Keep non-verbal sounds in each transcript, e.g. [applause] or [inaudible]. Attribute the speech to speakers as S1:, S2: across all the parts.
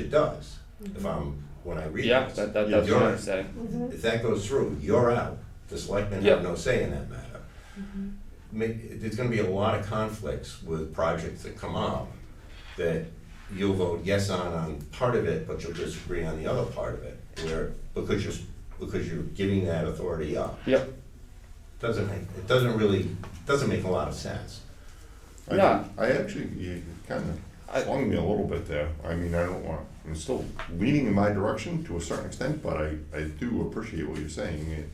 S1: it does. If I'm, when I read
S2: Yeah,
S1: this.
S2: that, that,
S1: you're-
S2: that's what
S1: you're-
S2: I'm saying.
S1: If that goes through, you're out. The selectmen have
S2: Yeah.
S1: no say in that matter. Ma- There's gonna be a lot of conflicts with projects that come up that you'll vote yes on, on part of it, but you'll disagree on the other part of it, where, because you're, s- because you're giving that authority up.
S2: Yeah,
S1: Doesn't make, it doesn't really, doesn't make a lot of sense.
S3: I,
S2: Yeah.
S3: I actually, you kind
S2: I-
S3: of swung me a little bit there. I mean, I don't want, I'm still leaning in my direction to a certain extent, but I, I do appreciate what you're saying. It-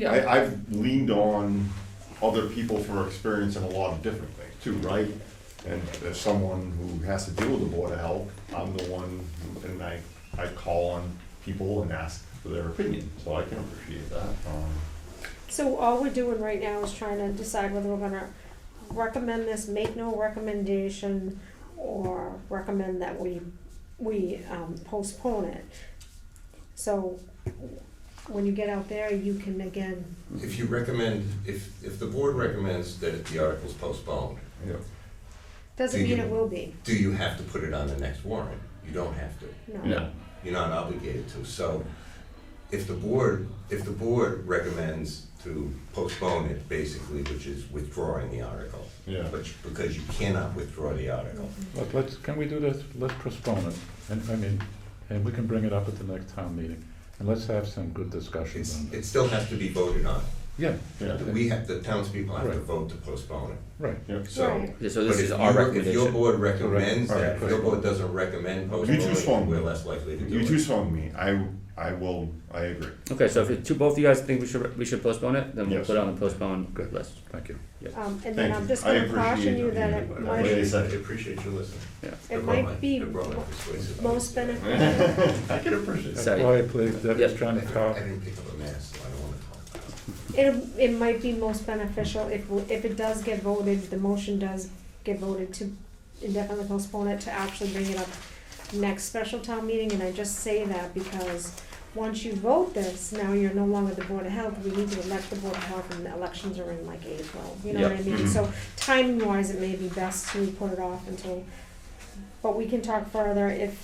S2: yeah.
S3: I, I've leaned on other people for experience in a lot of different things too, right? And as someone who has to deal with the Board of Health, I'm the one, who- and I, I call on people and ask for their opinion, so I can appreciate that. Um,
S4: So all we're doing right now is trying to decide whether we're gonna recommend this, make no recommendation, or recommend that we, we um, postpone it. So when you get out there, you can again,
S1: If you recommend, if, if the board recommends that the article's postponed,
S3: yeah.
S4: doesn't mean it will be,
S1: do you have to put it on the next warrant? You don't have to.
S4: no.
S2: No.
S1: you're not obligated to. So if the board, if the board recommends to postpone it, basically, which is withdrawing the article,
S3: Yeah.
S1: which, because you cannot withdraw the article.
S5: But let's, can we do this, let's postpone it, and, I mean, and we can bring it up at the next town meeting, and let's have some good discussion
S1: It's,
S5: on it.
S1: it still has to be voted on.
S5: Yeah.
S3: Yeah.
S1: We have, the townspeople have to
S5: Right.
S1: vote to postpone it,
S5: Right,
S3: Yeah.
S1: so.
S4: Right.
S2: Yeah, so
S1: but
S2: this
S1: if
S2: is
S1: you-
S2: our
S1: If your
S2: recommendation.
S1: board recommends
S3: Correct.
S1: that, if your board
S3: Alright.
S1: doesn't recommend
S3: You two swung.
S1: postponing, we're less likely to do it.
S3: You two swung me. I, I will, I agree.
S2: Okay, so if it- two, both of you guys think we should, we should postpone it, then we'll
S3: Yes.
S2: put it on the postpone
S5: Good.
S2: list.
S5: thank you.
S4: Um, and then
S3: Thank
S4: I'm
S3: you. I
S4: just gonna caution
S3: appreciate
S4: you that it
S3: it.
S1: Wait
S4: might,
S1: a second, I appreciate you listening.
S2: Yeah.
S4: it
S1: brought my-
S4: might be
S1: it brought my persuasive-
S4: most beneficial.
S3: [laughs] I can appreciate
S5: That's
S2: Sorry.
S5: why, please, Debbie's
S2: Yep.
S5: trying to
S1: I
S5: talk.
S1: didn't pick up a mess, so I don't wanna talk about it.
S4: It, it might be most beneficial if, we- if it does get voted, the motion does get voted to indefinitely postpone it to actually bring it up next special town meeting, and I just say that because once you vote this, now you're no longer the Board of Health, we need to elect the Board of Health, and the elections are in like April, you know what I mean? So timing wise, it may be best to put it off until, but we can talk further if,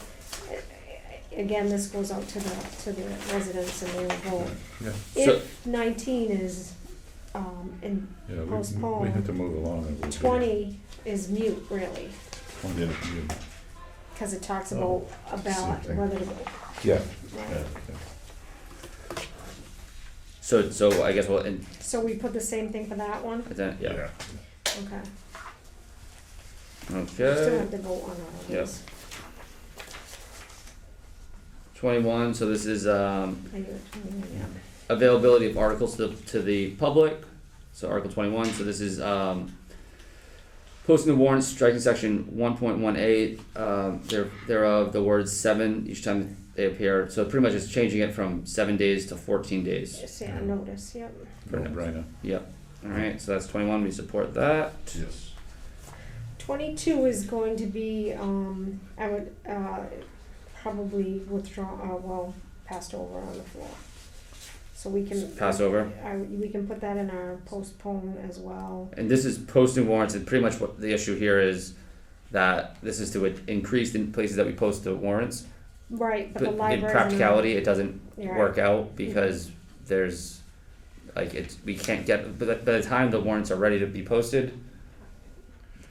S4: again, this goes out to the, to the residents and they will vote.
S5: Yeah,
S2: So-
S4: If nineteen is, um, and
S5: yeah, we- we, we
S4: Postpone.
S5: have to move along. and we'll do-
S4: twenty is mute really,
S5: Twenty, yeah.
S4: cause it talks about a ballot,
S3: thing.
S4: whether to vote.
S5: Yeah.
S3: Yeah.
S2: So, so I guess we'll, and,
S4: So we put the same thing for that one,
S2: then, yeah,
S3: Yeah.
S4: okay, We still
S2: okay.
S4: have to vote on all of
S2: Yeah.
S4: these.
S2: Twenty-one, so this is, um,
S4: I do it, yeah.
S2: availability of articles to, to the public. So Article twenty-one, so this is, um, posting the warrants, striking section one point one eight, um, there, thereof, the words seven each time they appear. So pretty much it's changing it from seven days to fourteen days.
S4: Just say a notice, yep,
S5: No brainer.
S2: Yep, alright, so that's twenty-one, we support that.
S3: Yes.
S4: twenty-two is going to be, um, I would, uh, probably withdraw, uh, well, passed over on the floor. So we can.
S2: Pass over.
S4: I, we can put that in our postpone as well.
S2: And this is posting warrants, and pretty much what the issue here is that this is to increase in places that we post the warrants.
S4: Right, but
S2: But
S4: the
S2: in
S4: library. Mm-hmm.
S2: practicality, it doesn't
S4: Yeah.
S2: work out because there's, like, it's, we can't get, by the, by the time the warrants are ready to be posted,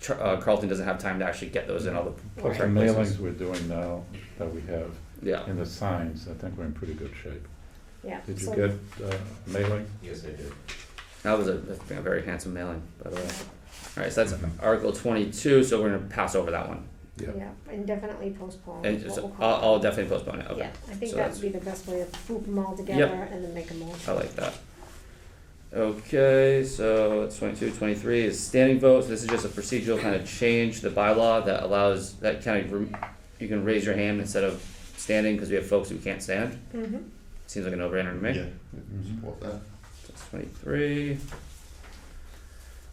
S2: Char- uh, Carlton doesn't have time to actually get those in all the,
S5: Plus the
S2: Right.
S5: mailings we're doing now that we have,
S2: yeah.
S5: and the signs, I think we're in pretty good shape.
S4: Yeah.
S5: Did you
S4: so-
S5: get, uh, mailing?
S1: Yes, I did.
S2: That was a, that's been a very handsome mailing, by the way. Alright, so that's Article twenty-two, so we're gonna pass over that one.
S5: Yeah.
S4: Yeah, and definitely postpone.
S2: And
S4: what
S2: so
S4: we'll call
S2: I'll,
S4: it.
S2: I'll definitely postpone it, okay.
S4: Yeah, I think
S2: so
S4: that
S2: that's-
S4: would be the best way to group them all together and then make a motion.
S2: I like that. Okay, so it's 22, 23 is standing vote. So this is just a procedural kind of change to the bylaw that allows that kind of rem- you can raise your hand instead of standing because we have folks who can't stand.
S4: Mhm.
S2: Seems like a no-brainer to me.
S3: Yeah. Support that.
S2: That's 23.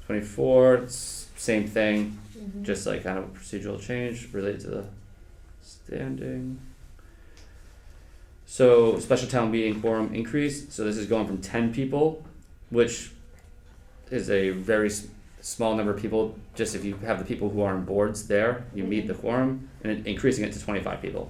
S2: 24, it's same thing,
S4: Mhm.
S2: just like kind of a procedural change related to the standing. So special town meeting quorum increase, so this is going from ten people, which is a very s- small number of people, just if you have the people who are on boards there, you meet the quorum, and then increasing it to twenty-five people.